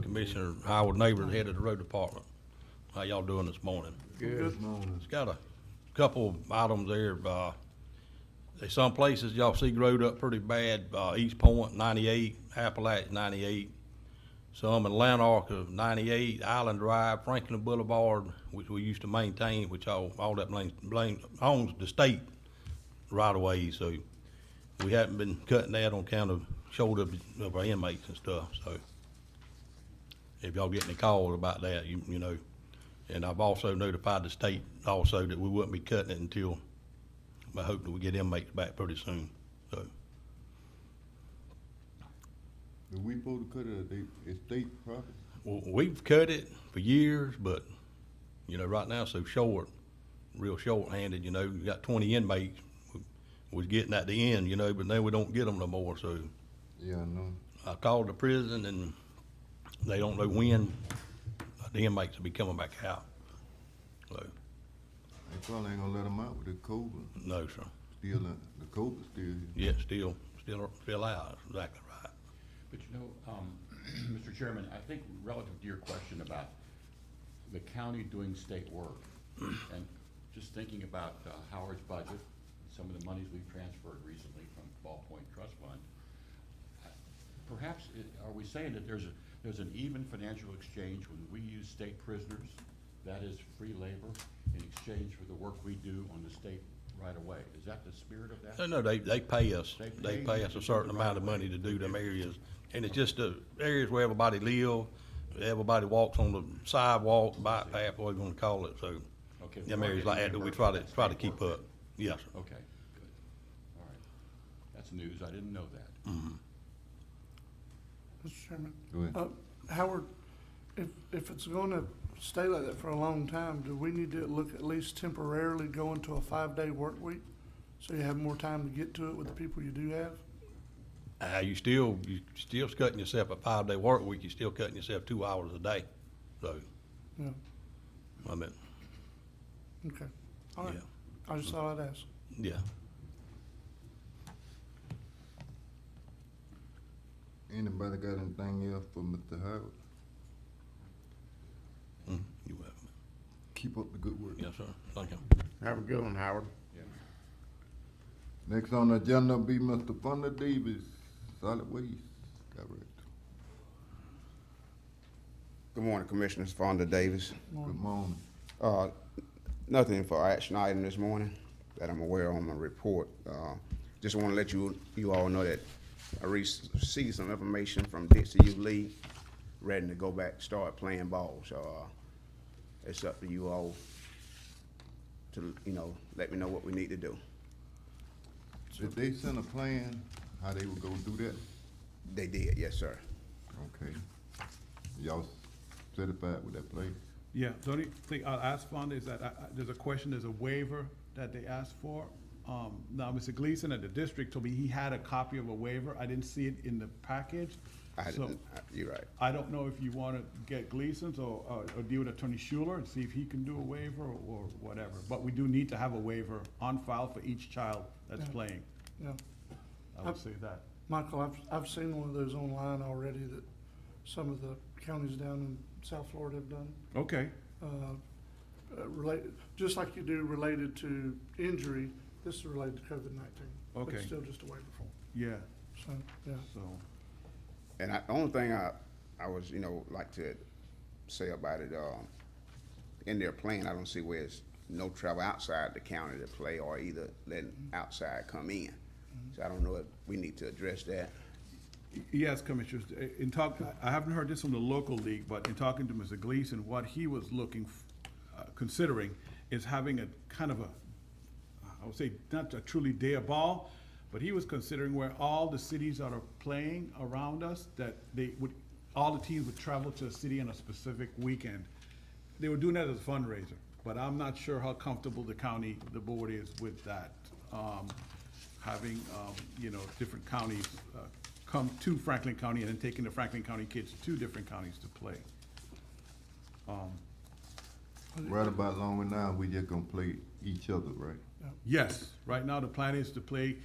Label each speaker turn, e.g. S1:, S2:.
S1: Commissioner Howard Neighbor, the head of the road department. How y'all doing this morning?
S2: Good.
S1: It's got a couple items there, uh, there's some places y'all see growed up pretty bad, uh, East Point ninety-eight, Appalachia ninety-eight. Some in Lanark of ninety-eight, Island Drive, Franklin Boulevard, which we used to maintain, which all, all that blame, blame, owns the state right away, so we haven't been cutting that on account of shoulder of our inmates and stuff, so. If y'all get any calls about that, you, you know, and I've also notified the state also that we wouldn't be cutting it until, I hope that we get inmates back pretty soon, so.
S3: Are we supposed to cut it, they, it's state property?
S1: w- We've cut it for years, but, you know, right now, so short, real short-handed, you know, you got twenty inmates. we- We're getting at the end, you know, but now we don't get them no more, so
S3: Yeah, I know.
S1: I called the prison and they don't know when the inmates will be coming back out. So,
S3: They probably ain't gonna let them out with the COVID,
S1: no, sir.
S3: still, uh, the COVID still here.
S1: Yet still, still, still out, exactly right.
S4: But you know, um, Mr. Chairman, I think relative to your question about the county doing state work, and just thinking about uh, Howard's budget, some of the monies we've transferred recently from Ball Point Trust Fund, uh, perhaps, i- are we saying that there's, a there's an even financial exchange when we use state prisoners, that is free labor, in exchange for the work we do on the state right away? Is that the spirit of that?
S1: No, no, they, they pay us,
S4: They
S1: they
S4: pay
S1: pay
S4: you
S1: us
S4: to
S1: a
S4: do
S1: certain
S4: the
S1: amount of money to do them areas, and it's just the areas where everybody live, everybody walks on the sidewalk, bike path, whatever you wanna call it, so.
S4: Okay, we
S1: Them
S4: are
S1: areas like that,
S4: getting
S1: that we
S4: reimbursed
S1: try
S4: for
S1: to,
S4: that
S1: try to
S4: state
S1: keep
S4: work.
S1: up, yes, sir.
S4: Okay, good. All right. That's news. I didn't know that.
S2: Mr. Chairman,
S3: Go ahead.
S2: uh, Howard, if, if it's gonna stay like that for a long time, do we need to look at least temporarily go into a five-day work week? So you have more time to get to it with the people you do have?
S1: Uh, you still, you still cutting yourself a five-day work week, you still cutting yourself two hours a day, so,
S2: Yeah,
S1: I mean,
S2: okay. All right,
S1: yeah,
S2: I just thought I'd ask.
S1: yeah.
S3: Anybody got anything else for Mr. Howard?
S1: Mhm, You have,
S3: Keep up the good work.
S1: yes, sir, thank you.
S5: Have a good one, Howard.
S3: Next on the agenda be Mr. Fonda Davis, Solid Waste Director.
S5: Good morning, Commissioners. Fonda Davis.
S3: Good morning.
S5: Uh, Nothing for action item this morning that I'm aware on my report. Uh, Just want to let you, you all know that I received some information from Dixie U League, ready to go back, start playing ball. So uh, it's up to you all to, you know, let me know what we need to do.
S3: Did they send a plan, how they were gonna do that?
S5: They did, yes, sir.
S3: Okay. Y'all certified with that plan?
S6: Yeah, the only thing I'll ask Fonda is that I, I, there's a question, there's a waiver that they asked for. Um, now, Mr. Gleason at the district told me he had a copy of a waiver. I didn't see it in the package.
S5: I
S6: So
S5: didn't, I- you're right.
S6: I don't know if you wanna get Gleason's or, or, or deal with Attorney Schuler and see if he can do a waiver or, or whatever. But we do need to have a waiver on file for each child that's
S2: Yeah.
S6: playing.
S2: Yeah.
S6: I would say that.
S2: Michael, I've, I've seen one of those online already that some of the counties down in South Florida have done.
S6: Okay,
S2: uh, uh, related, just like you do related to injury, this is related to COVID nineteen. But
S6: Okay.
S2: it's still just a waiver form,
S6: yeah,
S2: so, yeah.
S6: so,
S5: And I, the only thing I, I was, you know, like to say about it, um, in their plan, I don't see where it's no travel outside the county to play or either letting outside come in. So I don't know if we need to address that.
S6: Yes, Commissioners, uh, in talk, I haven't heard this from the local league, but in talking to Mr. Gleason, what he was looking, f- uh, considering is having a kind of a, I would say, not a truly day of ball, but he was considering where all the cities that are playing around us, that they would, all the teams would travel to a city on a specific weekend. They were doing that as a fundraiser, but I'm not sure how comfortable the county, the board is with that. Um, having, um, you know, different counties, uh, come to Franklin County and then taking the Franklin County kids to different counties to play.
S3: Right about long now, we just gonna play each other, right?
S6: Yes, right now the plan is to play